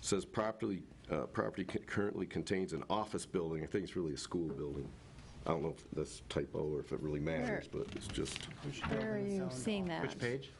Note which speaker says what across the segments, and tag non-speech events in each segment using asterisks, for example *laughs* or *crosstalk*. Speaker 1: says property, uh, property c- currently contains an office building. I think it's really a school building. I don't know if that's typo or if it really matters, but it's just
Speaker 2: Where are you seeing that?
Speaker 3: Which page?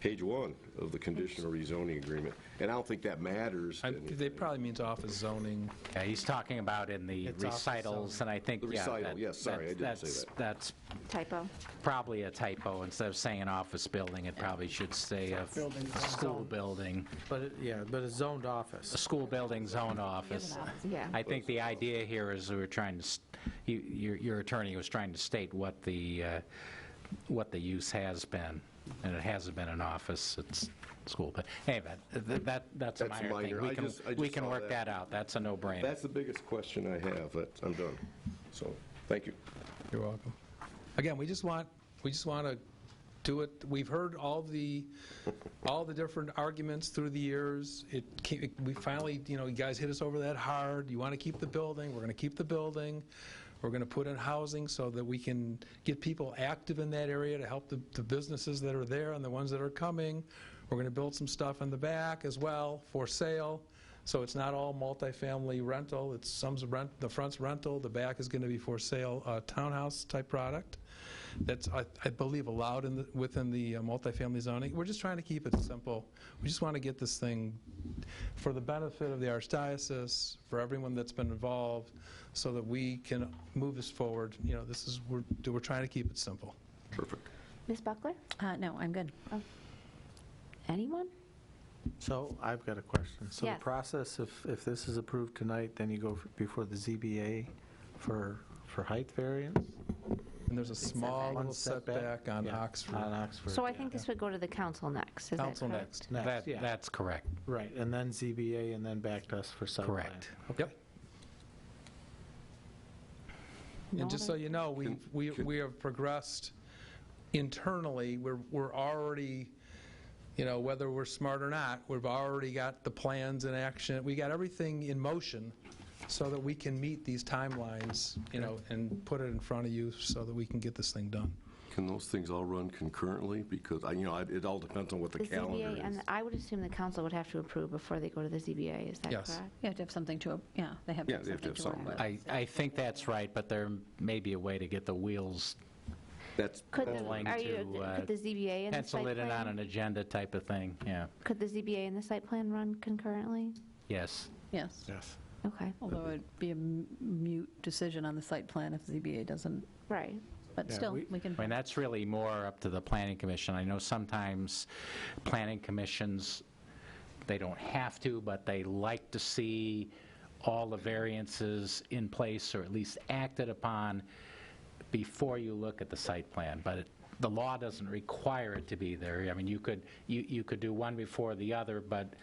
Speaker 1: page one of the conditional rezoning agreement. And I don't think that matters.
Speaker 4: I-
Speaker 1: in-
Speaker 4: They probably means office zoning.
Speaker 5: Yeah, he's talking about in the
Speaker 3: It's off the
Speaker 5: recitals, and I think,
Speaker 1: The
Speaker 5: yeah.
Speaker 1: recital,
Speaker 5: that-
Speaker 1: yes, sorry, I didn't
Speaker 5: that's-
Speaker 1: say that.
Speaker 5: That's
Speaker 2: Typo.
Speaker 5: probably a typo. Instead of saying an office building, it probably should say a
Speaker 3: Building.
Speaker 5: a school building,
Speaker 3: But, it- yeah, but it's zoned
Speaker 5: a
Speaker 3: office.
Speaker 5: school building zone office.
Speaker 2: Yeah.
Speaker 5: I think the idea here is we we're trying to, s- you- your your attorney was trying to state what the, uh, what the use has been, and it hasn't been an office, it's school, but anyway, th- that, that's a
Speaker 1: That's
Speaker 5: minor
Speaker 1: minor.
Speaker 5: thing.
Speaker 1: I
Speaker 5: We can,
Speaker 1: just- I
Speaker 5: we
Speaker 1: just
Speaker 5: can
Speaker 1: saw
Speaker 5: work
Speaker 1: that.
Speaker 5: that out, that's a no-brainer.
Speaker 1: That's the biggest question I have. That's- I'm done. So, thank you.
Speaker 4: You're welcome. Again, we just want, we just want to do it, we've heard all the, all the different arguments through the years. It, ca- we finally, you know, you guys hit us over that hard. You want to keep the building, we're going to keep the building. We're going to put in housing so that we can get people active in that area to help the the businesses that are there and the ones that are coming. We're going to build some stuff in the back as well for sale. So it's not all multifamily rental, it's some's rent, the front's rental, the back is going to be for sale, uh, townhouse-type product. That's, I I believe, allowed in, the- within the uh, multifamily zoning. We're just trying to keep it simple. We just want to get this thing for the benefit of the archdiocese, for everyone that's been involved, so that we can move this forward. You know, this is, we're, we're trying to keep it simple.
Speaker 1: Perfect.
Speaker 2: Ms. Buckler?
Speaker 6: Uh, No, I'm good.
Speaker 2: Oh. Anyone?
Speaker 3: So I've got a question. So the
Speaker 2: Yes.
Speaker 3: process, if, if this is approved tonight, then you go f- before the ZBA for, for height variance?
Speaker 4: And there's a small
Speaker 3: One
Speaker 4: little setback on
Speaker 3: Yeah, On
Speaker 4: Oxford.
Speaker 3: Oxford.
Speaker 2: So I
Speaker 3: yeah.
Speaker 2: think this would go to the council next, is that correct?
Speaker 4: Council next.
Speaker 3: Next,
Speaker 5: That,
Speaker 3: yeah,
Speaker 5: that's correct,
Speaker 3: right, and then ZBA and then back to us for site plan.
Speaker 5: correct.
Speaker 4: Yep. And just so
Speaker 2: Not
Speaker 4: you know, we,
Speaker 1: Can-
Speaker 4: we,
Speaker 1: can-
Speaker 4: we have progressed internally, we're, we're already, you know, whether we're smart or not, we've already got the plans in action, we got everything in motion so that we can meet these timelines, you know, and put it in front of you so that we can get this thing done.
Speaker 1: Can those things all run concurrently? Because, I you know, I- it all depends on what the
Speaker 2: The
Speaker 1: calendar
Speaker 2: ZBA,
Speaker 1: is.
Speaker 2: and I would assume the council would have to approve before they go to the ZBA, is that correct?
Speaker 4: Yes.
Speaker 6: You have to have something to, yeah, they have to
Speaker 1: Yeah,
Speaker 6: have
Speaker 1: they have to have
Speaker 6: something to work
Speaker 1: something.
Speaker 6: with.
Speaker 5: I, I think that's right, but there may be a way to get the wheels,
Speaker 1: That's,
Speaker 2: Could the,
Speaker 5: Willing
Speaker 2: are you,
Speaker 5: to, uh,
Speaker 2: could the ZBA and the
Speaker 5: pencil
Speaker 2: site
Speaker 5: it in on
Speaker 2: plan?
Speaker 5: an agenda type of thing, yeah,
Speaker 2: Could the ZBA and the site plan run concurrently?
Speaker 5: yes.
Speaker 6: Yes,
Speaker 3: Yes.
Speaker 2: Okay,
Speaker 6: although it'd be a m- mute decision on the site plan if the ZBA doesn't,
Speaker 2: right.
Speaker 6: but
Speaker 3: Yeah,
Speaker 6: still,
Speaker 3: we-
Speaker 6: we can.
Speaker 5: I mean, that's really more up to the planning commission. I know sometimes planning commissions, they don't have to, but they like to see all the variances in place or at least acted upon before you look at the site plan. But it- the law doesn't require it to be there. I mean, you could, you you could do one before the other, but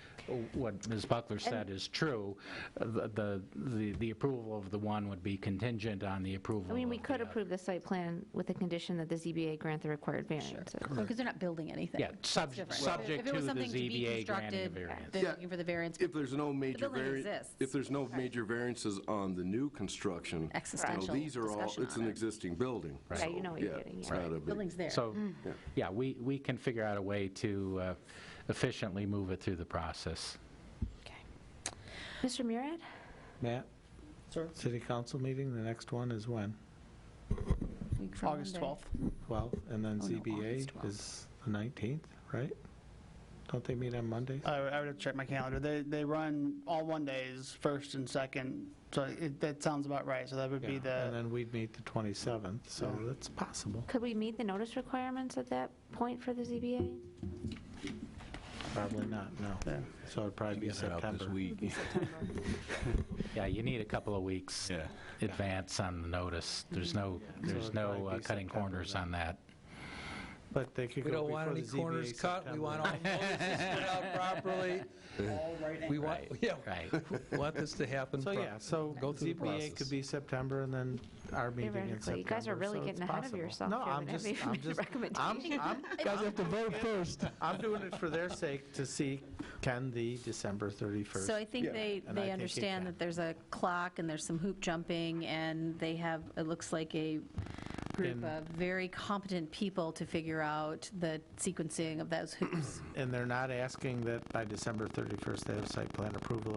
Speaker 5: what Ms. Buckler said is true. The- The the the approval of the one would be contingent on the approval
Speaker 2: I mean, we
Speaker 5: of the
Speaker 2: could
Speaker 5: other.
Speaker 2: approve the site plan with the condition that the ZBA grant the required variances.
Speaker 6: Because they're not building anything.
Speaker 5: Yeah,
Speaker 6: It's
Speaker 5: sub-
Speaker 6: different.
Speaker 5: subject
Speaker 6: If it was
Speaker 5: to the
Speaker 6: something be
Speaker 5: ZBA granting a
Speaker 6: constructed,
Speaker 5: variance.
Speaker 6: They're
Speaker 1: Yeah.
Speaker 6: looking for the variance,
Speaker 1: if there's no major
Speaker 6: building
Speaker 1: vari-
Speaker 6: exists.
Speaker 1: if there's no major variances on the new construction, you know,
Speaker 6: Existential
Speaker 1: these are all,
Speaker 6: discussion
Speaker 1: it's
Speaker 6: on
Speaker 1: an
Speaker 6: it.
Speaker 1: existing building.
Speaker 2: Yeah, you
Speaker 1: So,
Speaker 2: know what you're
Speaker 1: yeah,
Speaker 2: getting,
Speaker 1: it's
Speaker 2: yeah.
Speaker 1: not a big-
Speaker 6: building's there. Mm.
Speaker 5: So, yeah, we, we can figure out a way to uh, efficiently move it through the process.
Speaker 2: Mr. Murad?
Speaker 3: Matt? Sir? City council meeting, the next one is when?
Speaker 6: Week from
Speaker 7: August
Speaker 6: Monday.
Speaker 7: 12th.
Speaker 3: 12, and then
Speaker 6: Oh, no, August
Speaker 3: ZBA
Speaker 6: 12th.
Speaker 3: is the 19th, right? Don't they meet on Mondays?
Speaker 7: I I would have to check my calendar. They, they run all one days, first and second, so it- that sounds about right. So that would be
Speaker 3: Yeah, And
Speaker 7: the,
Speaker 3: then we'd meet the 27th, so that's possible.
Speaker 2: Could we meet the notice requirements at that point for the ZBA?
Speaker 3: Probably not, no.
Speaker 7: Yeah.
Speaker 3: So it'd probably be September.
Speaker 5: Yeah, you need a couple of weeks advance on the notice. There's
Speaker 6: Mm-hmm.
Speaker 5: no, there's
Speaker 3: it'd
Speaker 5: no
Speaker 3: probably
Speaker 5: uh,
Speaker 3: be
Speaker 5: cutting
Speaker 3: September
Speaker 5: corners
Speaker 3: then.
Speaker 5: on that.
Speaker 3: But they could
Speaker 4: We
Speaker 3: go
Speaker 4: don't want
Speaker 3: before the
Speaker 4: any corners
Speaker 3: ZBA
Speaker 4: cut, we want
Speaker 3: September.
Speaker 4: all notices put out *laughs* properly. We want,
Speaker 5: Right,
Speaker 4: yeah,
Speaker 5: right. *laughs*
Speaker 4: we want this to happen.
Speaker 3: So
Speaker 4: pro-
Speaker 3: yeah, so
Speaker 4: Go through the
Speaker 3: ZBA could
Speaker 4: process.
Speaker 3: be September and then our meeting in September.
Speaker 2: Theoretically, you guys are really
Speaker 3: so
Speaker 2: getting
Speaker 3: it's
Speaker 2: ahead of
Speaker 3: possible.
Speaker 2: yourself
Speaker 3: No,
Speaker 2: here
Speaker 3: I'm
Speaker 2: with
Speaker 3: just-
Speaker 2: every *laughs*
Speaker 3: I'm just-
Speaker 2: recommendation. *laughs*
Speaker 3: I'm, I'm,
Speaker 4: Guys have to vote first.
Speaker 3: I'm doing it for their sake to see can the December 31st.
Speaker 6: So I think they,
Speaker 3: And I think
Speaker 6: they
Speaker 3: it
Speaker 6: understand
Speaker 3: can.
Speaker 6: that there's a clock and there's some hoop jumping, and they have, it looks like a group
Speaker 3: And-
Speaker 6: of very competent people to figure out the sequencing of those hoops.
Speaker 3: And they're not asking that by December 31st, they have site plan approval